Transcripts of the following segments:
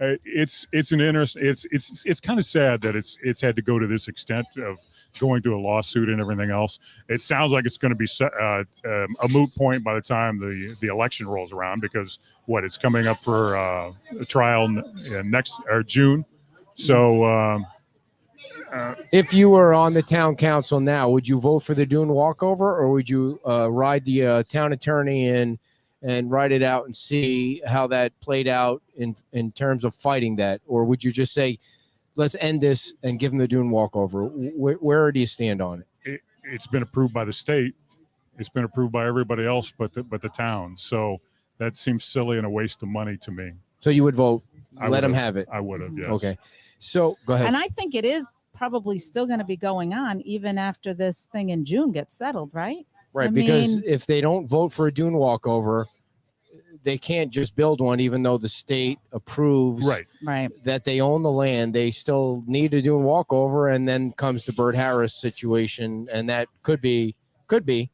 uh, it's it's an interest. It's it's it's kind of sad that it's it's had to go to this extent of going to a lawsuit and everything else. It sounds like it's going to be se- uh, um, a moot point by the time the the election rolls around because what it's coming up for uh, a trial n- uh, next or June. So um, uh, If you were on the town council now, would you vote for the Dune walkover, or would you uh, ride the uh, town attorney in and ride it out and see how that played out in in terms of fighting that, or would you just say, let's end this and give them the Dune walkover? Where, where do you stand on it? it's been approved by the state. It's been approved by everybody else, but the, but the town. So that seems silly and a waste of money to me. So you would vote, I let them would've- have it. I would have. Yes. Mm-hmm. Okay. So go ahead. And I think it is probably still going to be going on even after this thing in June gets settled, right? Right, I because mean- if they don't vote for a dune walkover, they can't just build one, even though the state approves Right. Right. that they own the land. They still need to do a walkover, and then comes the Bert Harris situation, and that could be, could be,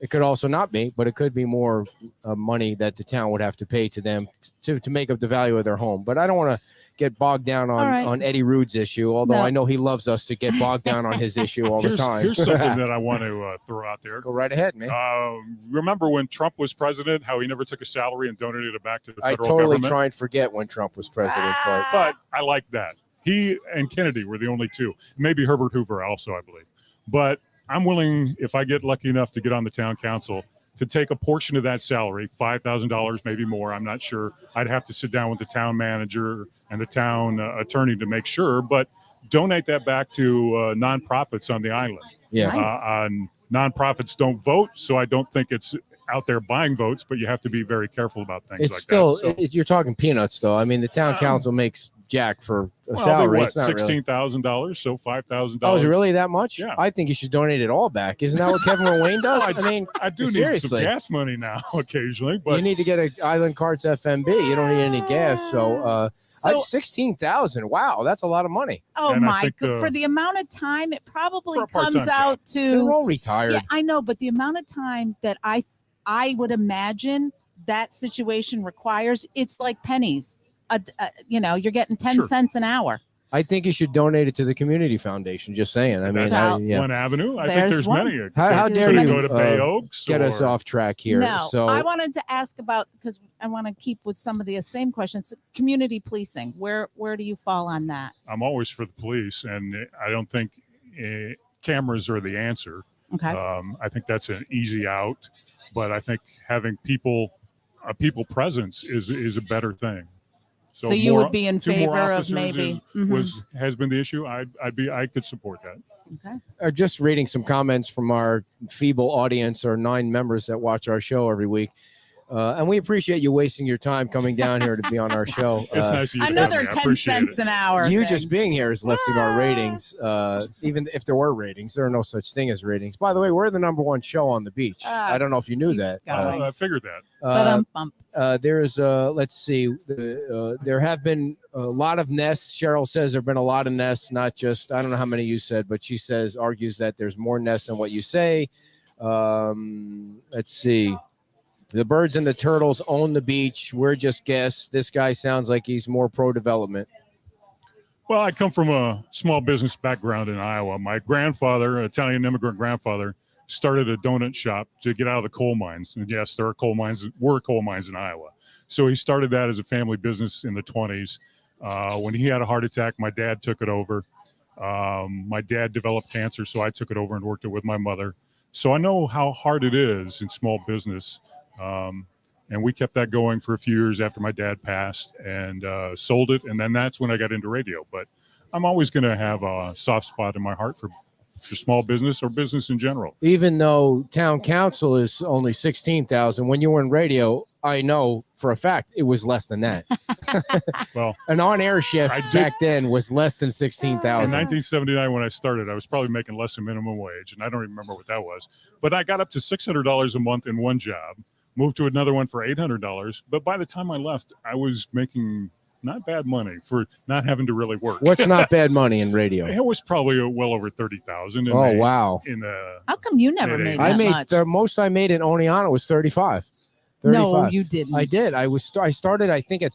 it could also not be, but it could be more uh, money that the town would have to pay to them t- to to make up the value of their home. But I don't want to get bogged down on All right. on Eddie Rude's issue, although No. I know he loves us to get bogged down on his issue all the here's, time. here's something that I want to uh, throw out there. Go right ahead, man. Uh, remember when Trump was president, how he never took a salary and donated it back to the I federal totally government? try and forget when Trump was president, but but I like that. He and Kennedy were the only two. Maybe Herbert Hoover also, I believe. But I'm willing, if I get lucky enough to get on the town council, to take a portion of that salary, five thousand dollars, maybe more. I'm not sure. I'd have to sit down with the town manager and the town uh, attorney to make sure. But donate that back to uh, nonprofits on the island. yeah, Nice. Uh, on nonprofits don't vote, so I don't think it's out there buying votes. But you have to be very careful about things. it's like still that. So- it- you're talking peanuts though. I mean, the town Um, council makes jack for a Well, they're salary. what, It's not really. sixteen thousand dollars, so five thousand Oh, is dollars. it really that much? Yeah. I think you should donate it all back. Isn't that what Kevin Wayne does? Well, I mean, I do need some Seriously. gas money now occasionally, you but need to get a Island Carts FMB. You don't need any gas. So, uh, So, sixteen thousand. Wow, that's a lot of money. oh and I my, think, go- uh, for the amount of time it probably for a part-time comes out They're to. all retired. Yeah, I know, but the amount of time that I I would imagine that situation requires, it's like pennies. A, a- you know, you're getting ten Sure. cents an hour. I think you should donate it to the community foundation. Just saying. I mean, I, Well, yeah. one avenue. I think There's there's one. many. It How- how could- dare could you, go to Bay uh, Oaks? Get us or- off track here. No, so I wanted to ask about because I want to keep with some of the same questions. Community policing, where where do you fall on that? I'm always for the police, and I don't think eh, cameras are the answer. Okay, Um, I think that's an easy out, but I think having people, a people presence is is a better thing. so, you more- would be in two more favor of officers maybe. Mhm. was has been the issue. I I'd be I could support that. okay. uh, just reading some comments from our feeble audience our nine members that watch our show every week. Uh, and we appreciate you wasting your time coming down here to be on our show. It's Uh, nice of you to have Another me. I ten appreciate it. cents an hour. Ah! you thing. just being here is lifting our ratings, uh, even if there were ratings. There are no such thing as ratings. By the way, we're the number one show on the beach. Ah, I don't know if you knew keep that. going. Uh, I figured that. but Uh, um, bump. uh, there's, uh, let's see, uh, uh, there have been a lot of nests. Cheryl says there have been a lot of nests, not just, I don't know how many you said, but she says, argues that there's more nests than what you say. Um, let's see. The birds and the turtles own the beach. We're just guests. This guy sounds like he's more pro development. Well, I come from a small business background in Iowa. My grandfather, Italian immigrant grandfather, started a donut shop to get out of the coal mines. And yes, there are coal mines, were coal mines in Iowa. So he started that as a family business in the 20s. Uh, when he had a heart attack, my dad took it over. Um, my dad developed cancer, so I took it over and worked it with my mother. So I know how hard it is in small business. Um, and we kept that going for a few years after my dad passed and uh, sold it and then that's when i got into radio but i'm always going to have a soft spot in my heart for for small business or business in general Even though town council is only 16,000, when you were in radio, I know for a fact it was less than that. Well, an on air I shift did- back then was less than in 16,000. 1979 when i started i was probably making less than minimum wage and i don't even remember what that was but i got up to $600 a month in one job moved to another one for $800 but by the time i left i was making not bad money for not having to really work What's not bad money in radio? it was probably uh, well over 30000 in Oh the- wow! in the How come you never It made is. that I made much? the most I made in Oneana was thirty five. no, you didn't. I did. I was I started I think at